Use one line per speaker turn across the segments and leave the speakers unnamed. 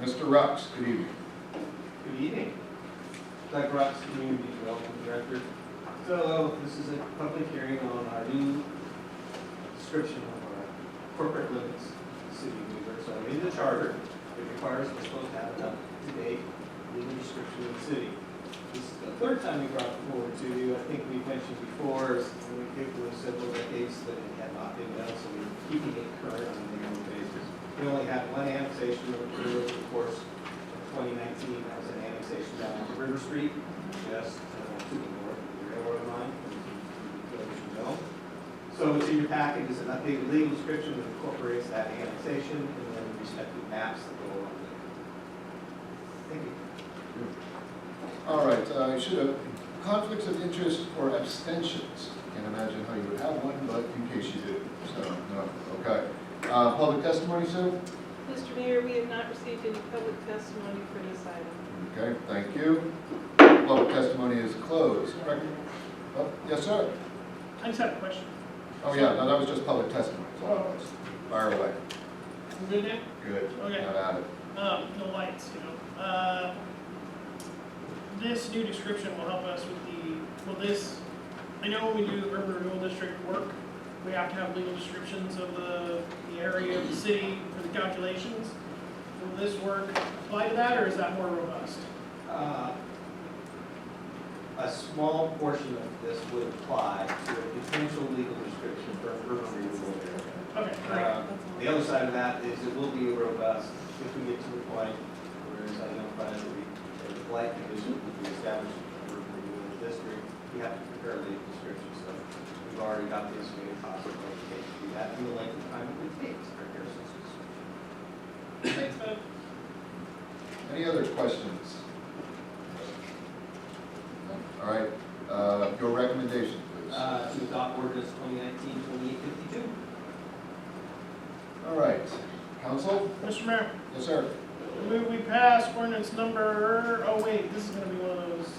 Mr. Rux, good evening.
Good evening. Doug Rocks, Community Development Director. So this is a public hearing on our new description of our corporate limits, in the city of Newburgh. So in the charter, it requires us supposed to have an up-to-date legal description of the city. This is the third time we brought it forward to you. I think we mentioned before, is when we it was several decades that it had not been done, so we're keeping it current on an annual basis. We only had one annexation of the course, 2019, that was an annexation down on River Street, just uh, to the north of the railroad line, as you- as you know. So what's in your packet is an updated legal description that incorporates that annexation and then the respective maps that go along with it. Thank you.
All right, uh, I should have, conflicts of interest or abstentions. Can't imagine how you would have one, but in case you do, so, no, okay. Uh, Public testimony, sir?
Mr. Mayor, we have not received any public testimony for this item.
Okay, thank you. Public testimony is closed. Rec- oh, Yes, sir?
I just have a question.
Oh, yeah, no, that was just public testimony. so that was- Fire away.
You Good there?
Good.
Okay.
Not at it.
Um, the lights, you know. Uh, This new description will help us with the, well, this, I know when we do urban renewal district work, we have to have legal descriptions of the, the area of the city for the calculations. Will this work apply to that, or is that more robust?
Uh, A small portion of this would apply to a potential legal description for urban renewal area.
Okay, great.
Um, The other side of that is it will be robust if we get to the point where it's identified that we, that the blight condition will be established for renewal of the district. We have to prepare the description, so we've already got the estimated cost of what it takes to do that and the length of time it would take to prepare such a description.
Thanks, bud.
Any other questions? No? All right, uh, your recommendation, please.
Uh, to adopt ordinance 2019 2852.
All right, council?
Mr. Mayor,
Yes, sir.
I move we pass ordinance number, oh wait, this is gonna be one of those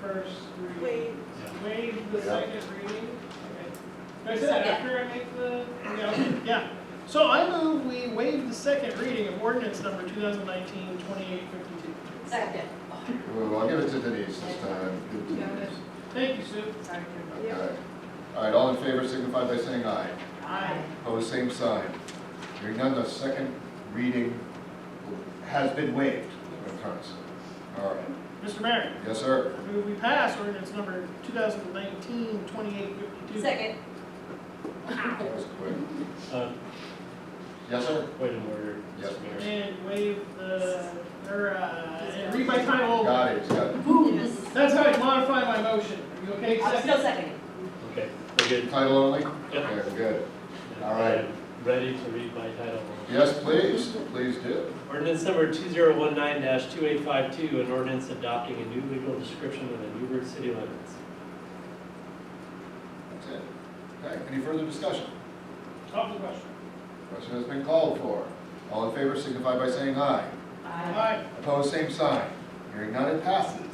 first reading.
Wait,
Waive the
Yeah.
second reading. Okay. Can I say that after I make the, yeah, okay, yeah. So I move we waive the second reading of ordinance number 2019-2852.
Second. Oh,
Well, I'll give it to Denise this time. Good to
Got it.
Denise.
Thank you, Sue.
Yeah.
Okay. All right, all in favor signify by saying aye.
Aye.
Opposed, same sign. Hearing none, the second reading has been waived. That's what I'm trying to say. All right.
Mr. Mayor,
Yes, sir.
I move we pass ordinance number 2019-2852.
Second.
That was quick.
Uh,
Yes, sir.
Point of order,
Yes.
Mr. Mayor.
And waive the, or, uh, and read by title only.
Got it, got it.
Yes.
That's how I modify my motion. Are you okay?
I'm still seconding.
Okay, we're good.
Title only?
Yep.
Okay, we're good. All right.
I'm Ready to read by title only.
Yes, please, please do.
Ordinance number two zero one nine two eight five two, an ordinance adopting a new legal description of the Newburgh city limits.
That's it. Okay, any further discussion?
Top of the question.
Question has been called for. All in favor signify by saying aye.
Aye.
Opposed, same sign. Hearing none, it passes.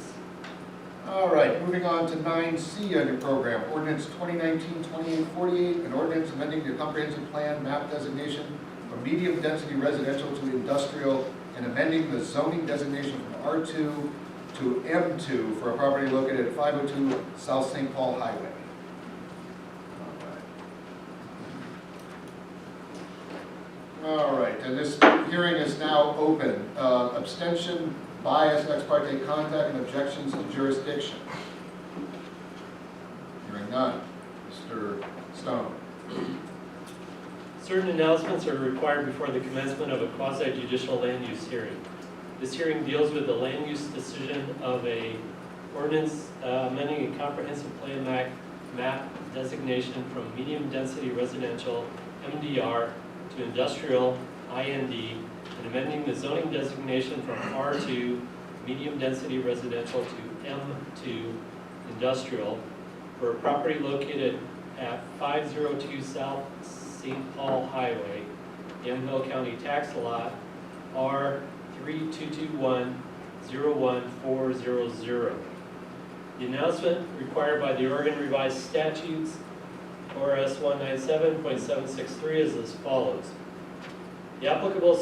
All right, moving on to nine C under program, ordinance 2019-2848, an ordinance amending the comprehensive plan map designation from medium-density residential to industrial and amending the zoning designation from R two to M two for a property located at five oh two South St. Paul Highway. All right, and this hearing is now open. Uh, Abstention, bias, ex parte contact, and objections to jurisdiction. Hearing none. Mr. Stone.
Certain announcements are required before the commencement of a quasi judicial land use hearing. This hearing deals with the land use decision of a ordinance uh, amending a comprehensive plan map, map designation from medium density residential, MDR, to industrial, IND, and amending the zoning designation from R2, medium density residential to M2, industrial, for a property located at 502 South St. Paul Highway, Yamhill County Tax Lot, R 3221-01400. The announcement required by the Oregon Revised Statutes, ORS 197.763, is as follows. The applicable